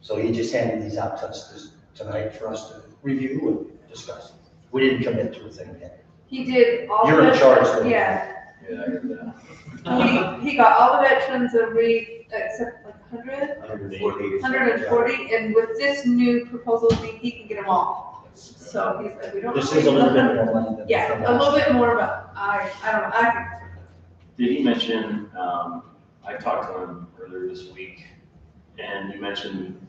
So he just handed these out to us this- tonight for us to review and discuss. We didn't commit to a thing yet. He did all. You're in veterans- charge then. Yeah, Yeah, I heard that. he, he got all the veterans that we, except like hundred, hundred and forty, and with this new proposal, he, he can get them all. So he said, we don't. This is a little bit more money than. Yeah, a little bit more, but I, I don't know, I, Did he mention, um, I talked to him earlier this week, and you mentioned,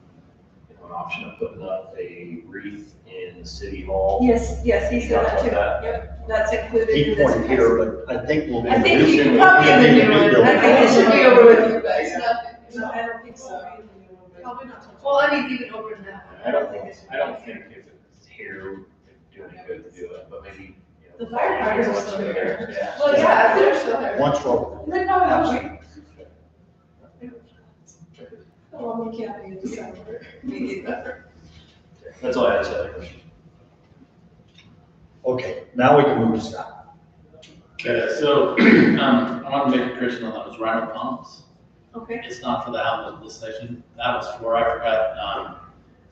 you know, an option of putting up a wreath in City Hall. yes, yes, he said that too, yep, that's included He in this. pointed here, but I think we'll. be I think you can probably have a new one, I think it should be over with you guys, no, no, I don't think so. Probably not. Well, I mean, even over now. I don't think, I don't think if it's here, it'd do any good to do it, but maybe, you know. The firefighters are still here. Yeah. Well, yeah, they're still there. Once we're. Then no, no, we- Well, we can't be in December. That's all I had to say. Chris. Okay, now we can move to Scott. Okay, so, um, I want to make a correction on that, it was Rhino Pumps. Okay, It's not for the outlet lift station, that was for, I forgot, um,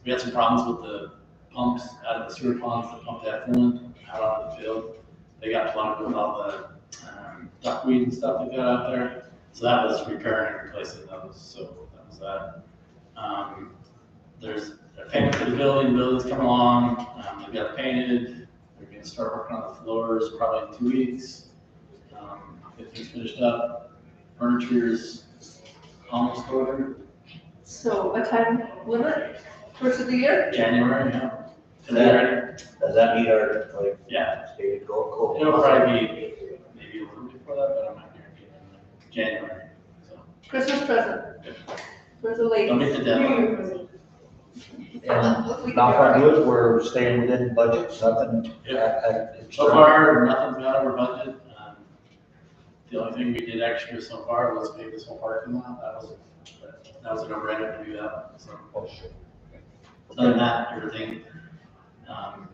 we had some problems with the pumps out of the sewer ponds that pumped effluent out on the field. They got plugged with all the, um, duckweed and stuff they got out there, so that was repairing and replacing those, so that was that. Um, there's a payment for the building, building's coming along, um, they got painted, they're gonna start working on the floors probably in two weeks. Um, Get things finished up, furniture's almost over, so a time limit, first of the year? January, yeah. And that- It'll Does that meet our, like? Yeah. Stated goal? Cool. probably be maybe a little before that, but I'm not guaranteeing, January, so. Christmas present for the ladies. Don't hit the deadline. Yeah. Knock on wood, we're staying within budget, nothing. Yeah. uh, uh, So far, nothing's out of our budget. Um, The only thing we did extra so far was pay this whole parking lot, that was, that was a no-brainer to do that, so. Oh, sure. Other than that, everything, um,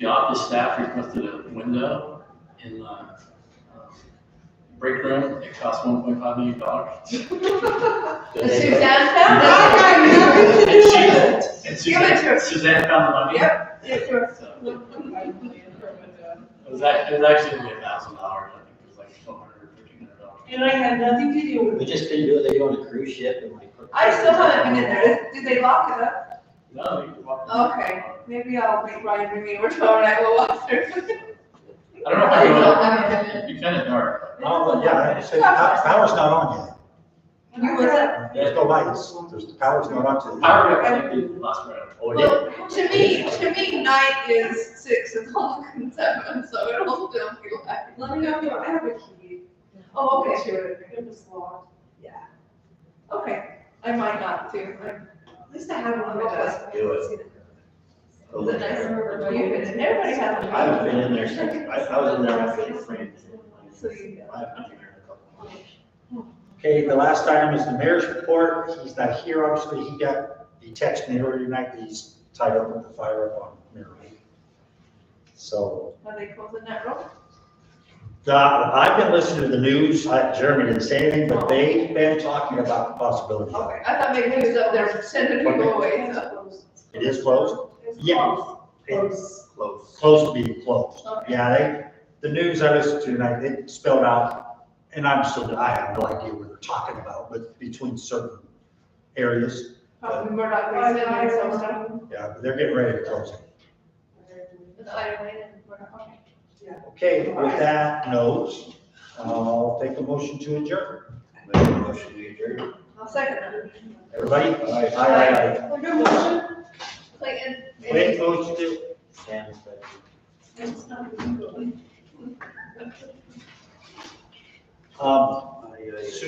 the office staff requested a window in the um, break room. It cost one point five million dollars. Is Suzanne found it? And Give it to Suzanne, Suzanne found the money. Yep. It's yours. It was act- it was actually only a thousand dollars, I think it was like twelve hundred or fifteen hundred dollars. And I had nothing to do with We just didn't do it, they go on a cruise ship and like. put- I still haven't been in there. Did they lock it up? No, you could walk. Okay, maybe I'll make Ryan bring me over tomorrow and I will walk through. I don't know if I would, it'd be kind of dark. Oh, yeah, I said, pow- power's not on yet. You was, There's no lights. There's, the power's not on. till- I would recommend the last round. Oh, yeah. well, to me, to me, night is six o'clock and seven, so it'll still be light. Let me know if you I have a key. Oh, okay, sure. It was locked. Okay, I might not too. At least I had one. It does. Do The it. nice, everybody has. I haven't been in there since, I, I was in there after the spring. So you- I haven't been there in a couple of months. Okay, the last item is the mayor's report. He's not here, obviously. He got, he texted me earlier tonight, that he's tied up with the fire up on Mirror Lake. So, Are they closing that road? uh, I've been listening to the news. I- Jeremy didn't say anything, but they've been talking about the possibility. Okay, I thought maybe he was up there sending people away, so. It is closed? Yeah. It's Close. close to being closed. Okay. Yeah, they, the news I listened to tonight, they spelled out, and I'm still, I have no idea what they're talking about, but between certain areas, Probably Murdoch, they sent me some stuff. yeah, but they're getting ready to close it. It's Iron Man and Murdoch, okay. Okay, with that note, I'll take a motion to adjourn. Make a motion to adjourn. I'll second that. Everybody? Aye, aye, aye. Good motion. Clayton. Wait, motion to, Sam's better. um, Um, Aye, aye, aye.